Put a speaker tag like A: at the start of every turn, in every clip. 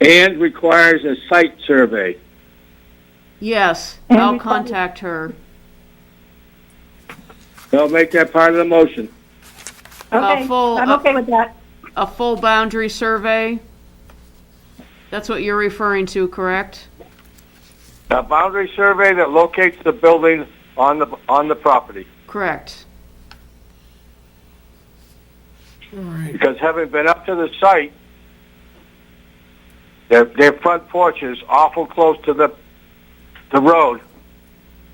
A: and requires a site survey.
B: Yes,
C: And
B: I'll
C: we thought-
B: contact her.
A: I'll make that part of the motion.
C: Okay,
B: full-
C: I'm
B: uh,
C: okay with that.
B: A full boundary survey? That's what you're referring to, correct?
A: A boundary survey that locates the building on the, on the property.
B: Correct.
D: All right,
A: Because having been up to the site, their, their front porch is awful close to the, the road.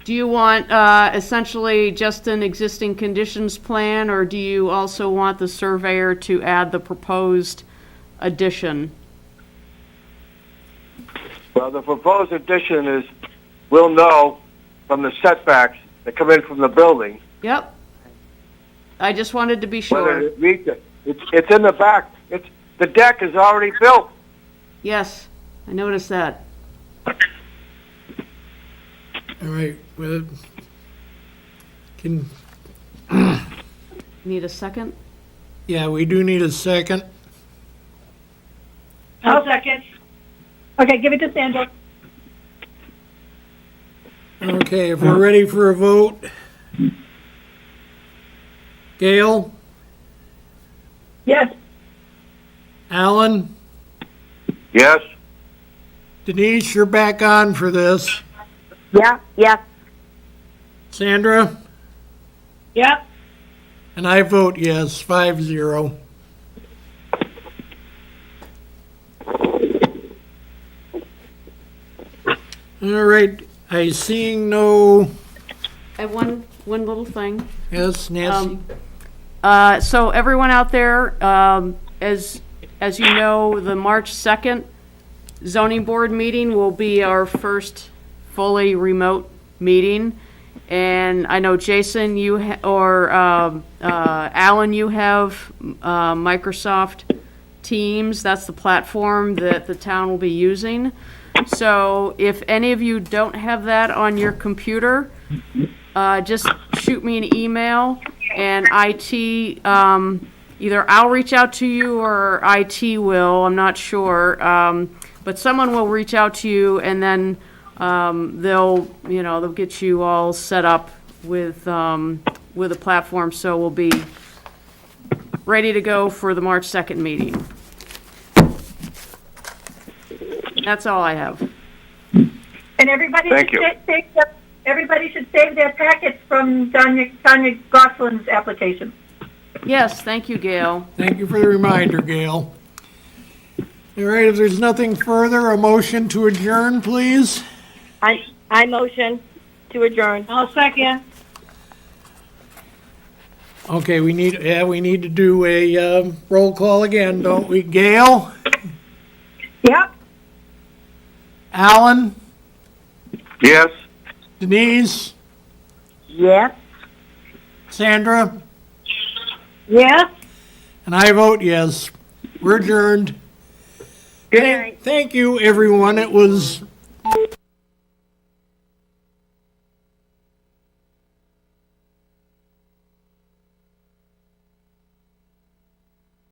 B: Do you want uh, essentially just an existing conditions plan, or do you also want the surveyor to add the proposed addition?
A: Well, the proposed addition is, we'll know from the setbacks that come in from the building,
B: Yep. I just wanted to be
A: whether
B: sure.
A: it meets it. It's, it's in the back, it's, the deck is already built.
B: Yes, I noticed that.
D: all right, well, can,
B: Need a second?
D: yeah, we do need a second.
C: I'll second. Okay, give it to Sandra.
D: Okay, if we're ready for a vote. Gail,
C: Yes,
D: Alan,
A: Yes?
D: Denise, you're back on for this.
E: Yeah, yeah,
D: Sandra,
C: yep,
D: and I vote yes, five zero. All right, I seeing no,
B: I have one, one little thing.
D: yes, Nancy?
B: Um, uh, So everyone out there, um, as, as you know, the March 2nd zoning board meeting will be our first fully remote meeting. And I know Jason, you, ha- or um, uh, Alan, you have uh, Microsoft Teams. That's the platform that the town will be using. So if any of you don't have that on your computer, uh, just shoot me an email, and IT, um, either I'll reach out to you or IT will, I'm not sure. Um, But someone will reach out to you, and then um, they'll, you know, they'll get you all set up with, um, with a platform, so we'll be ready to go for the March 2nd meeting. That's all I have.
C: and everybody should
A: Thank you.
C: sa- save, their- everybody should save their packets from Tanya, Tanya Gosselin's application.
B: Yes, thank you, Gail.
D: Thank you for the reminder, Gail. All right, if there's nothing further, a motion to adjourn, please.
E: I, I motion to adjourn.
C: I'll second.
D: Okay, we need, yeah, we need to do a um, roll call again, don't we? Gail,
C: Yep,
D: Alan,
A: Yes?
D: Denise,
E: Yes,
D: Sandra,
C: yes.
D: and I vote yes. We're adjourned.
E: Good night.
D: Thank you, everyone. It was